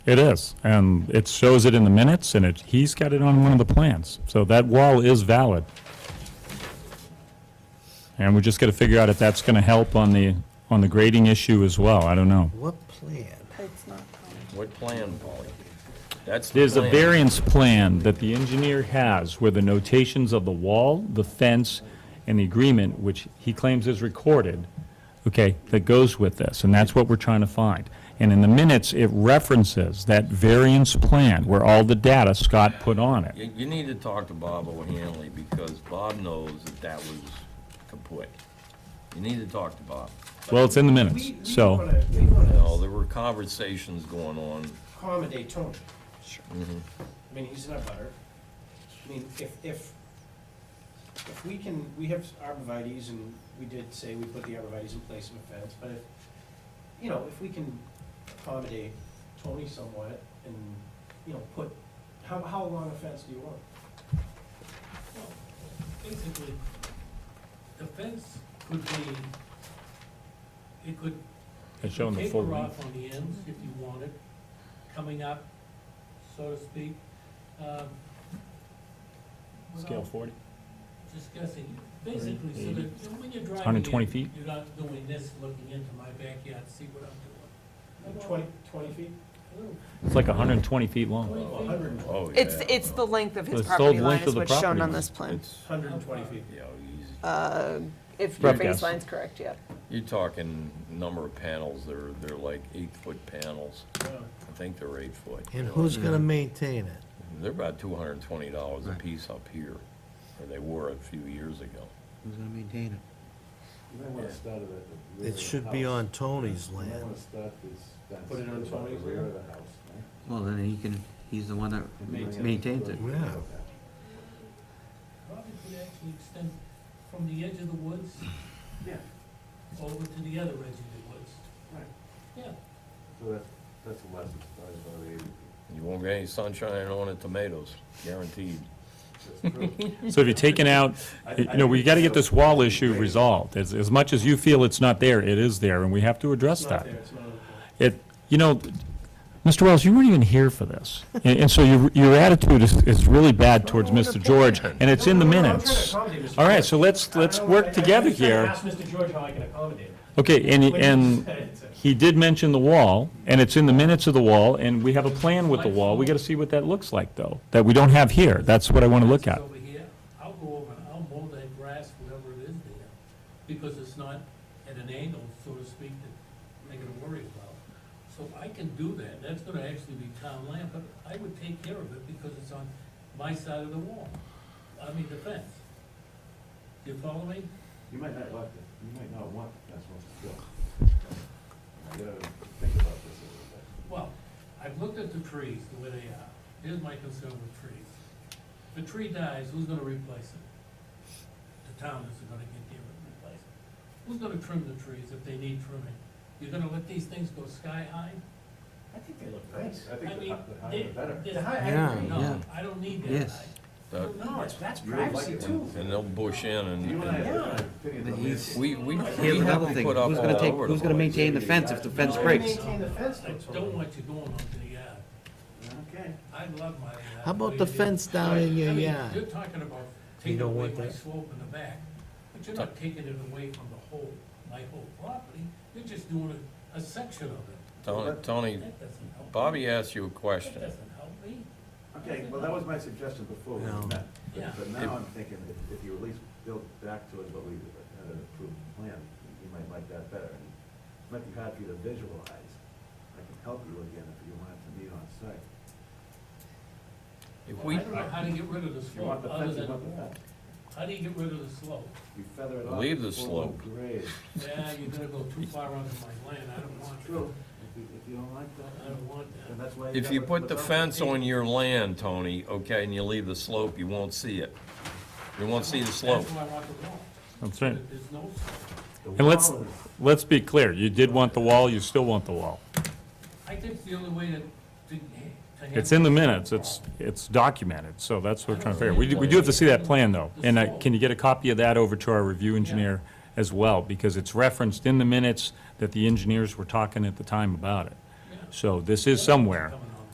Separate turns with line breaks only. It is, and it shows it in the minutes, and it, he's got it on one of the plans. So that wall is valid. And we just got to figure out if that's going to help on the, on the grading issue as well. I don't know.
What plan?
It's not.
What plan, Polly? That's the
There's a
plan.
variance plan that the engineer has where the notations of the wall, the fence, and the agreement, which he claims is recorded, okay, that goes with this, and that's what we're trying to find. And in the minutes, it references that variance plan where all the data Scott put on it.
You, you need to talk to Bob O'Hanley, because Bob knows that that was kaput. You need to talk to Bob.
Well, it's in the minutes,
We- we
so,
wanna- We want
No,
to
there were conversations going on.
accommodate Tony. I mean, he's not butter. I mean, if, if, if we can, we have arborvitae's and we did say we put the arborvitae's in place of a fence, but if, you know, if we can accommodate Tony somewhat and, you know, put, how, how long a fence do you want?
Well, Basically, the fence could be, it could
it's showing the full
taper
length.
off on the ends if you wanted, coming up, so to speak. Um,
Scale
without
40?
Discussing, basically, so that you know, when you're driving in.
120 feet?
You're not doing this, looking into my backyard, see what I'm
Like
doing.
Twenty, twenty feet?
A little
It's like 120 feet long.
Well, hundred and,
Oh, yeah.
It's, it's the length of his
It's the
property
length
line
of
is
the
what's shown
property
on
line.
this plan.
It's,
hundred and twenty feet.
you know, he's-
If your
Broadcast.
baseline's correct, yeah.
you're talking number of panels, they're, they're like eight-foot panels.
Yeah.
I think they're eight-foot.
And who's gonna maintain it?
They're about two hundred and twenty dollars a piece up here, or they were a few years ago.
Who's gonna maintain it?
You may want to start it at the rear of
It
the
should be
house.
on Tony's
You may
land.
want to start this fence.
Put it on
at the
Tony's
rear
land?
of the house, right?
Well, then he can, he's the one that
And bring it-
maintains it.
Yeah.
Probably could actually extend from the edge of the woods
Yeah,
over to the other edge of the woods.
right.
Yeah,
So that's, that's less, that's about eighty feet.
You won't get any sunshine on the tomatoes, guaranteed.
That's true.
So if you're taking out, you know, we got to get this wall issue resolved. As, as much as you feel it's not there, it is there, and we have to address
It's
that.
not there, it's not on the plan.
It, you know, Mr. Wells, you weren't even here for this. And, and so your, your attitude is, is really bad towards Mr. George, and it's in the
No, no, no, I'm trying to
minutes.
accommodate Mr.
All right,
George.
so let's, let's
I- I-
work
I-
together
I'm just trying to
here.
Ask Mr. George how I can accommodate him.
Okay, and,
Like you
and
said, it's a-
he did mention the wall, and it's in the minutes of the wall, and we have a plan with the wall. We got to see what that looks like, though, that we don't have here. That's what I want to look at.
Over here, I'll go over and I'll mow that grass wherever it is there, because it's not at an angle, so to speak, that I gotta worry about. So I can do that, that's gonna actually be town land, but I would take care of it because it's on my side of the wall, I mean the fence. Do you follow me?
You might not like it, you might not want the fence once it's built. You gotta think about this a little bit.
Well, I've looked at the trees, the way they are, here's my concern with trees. If a tree dies, who's gonna replace it? The town isn't gonna get there and replace it. Who's gonna trim the trees if they need trimming? You're gonna let these things go sky high?
I think they look nice.
I
I
think the
mean, they-
hi- the higher the better.
they-
The high- I
Yeah,
agree.
No,
yeah.
I don't need that
Yes.
high.
That-
No, it's, that's
You would like
privacy
it
too.
when-
And they'll bush in and.
You and I
and-
have different opinions on
But he's-
this.
We, we, we
Here's
have
another
to
thing,
put up
who's gonna
all
take,
over the
who's gonna
place.
maintain the fence if the fence
No,
breaks?
Maintain the fence, though,
I
Tony.
don't want you going onto the yard.
Okay.
I love my yard.
How about
way
the
it is.
fence down in your
I mean,
yard?
You're talking about taking
don't
away
want
my
that?
slope in the back, but you're not taking it away from the whole, my whole property. You're just doing a, a section of it.
Tony, Tony,
That doesn't help.
Bobby asked you a
That
question.
doesn't help me.
Okay, well, that was my suggestion before we
No.
met.
Yeah.
But- But now I'm thinking if, if you at least build back to it what we had an approved plan, you might like that better. And It Might be hard for you to visualize. I can help you again if you want it to meet on site.
If
I
we,
don't know how to get rid of the
If you want
slope,
the
other
fence, you
than,
want the fence.
how do you get rid of the slope?
You feather it off.
Leave the
before
slope.
Grade.
Yeah, you're gonna go too far onto my land. I don't want
It's
that.
true. If you, if you don't like
I
that,
don't want
then
that.
that's why.
if
got
you
what-
put
what's
the
up with
fence
me.
on your land, Tony, okay, and you leave the slope, you won't see it. You won't see the slope.
That's why I want the wall.
That's right.
There's no slope.
The
And let's,
wall is-
let's be clear, you did want the wall, you still want the wall.
I think the only way to, to. to
It's in the
handle-
minutes, it's, it's documented, so that's what we're trying to figure. We, do- we do have to see that plan, though. And uh, can you get a copy of that over to our review engineer as well? Because it's referenced in the minutes that the engineers were talking at the time about it. So this is somewhere.
Coming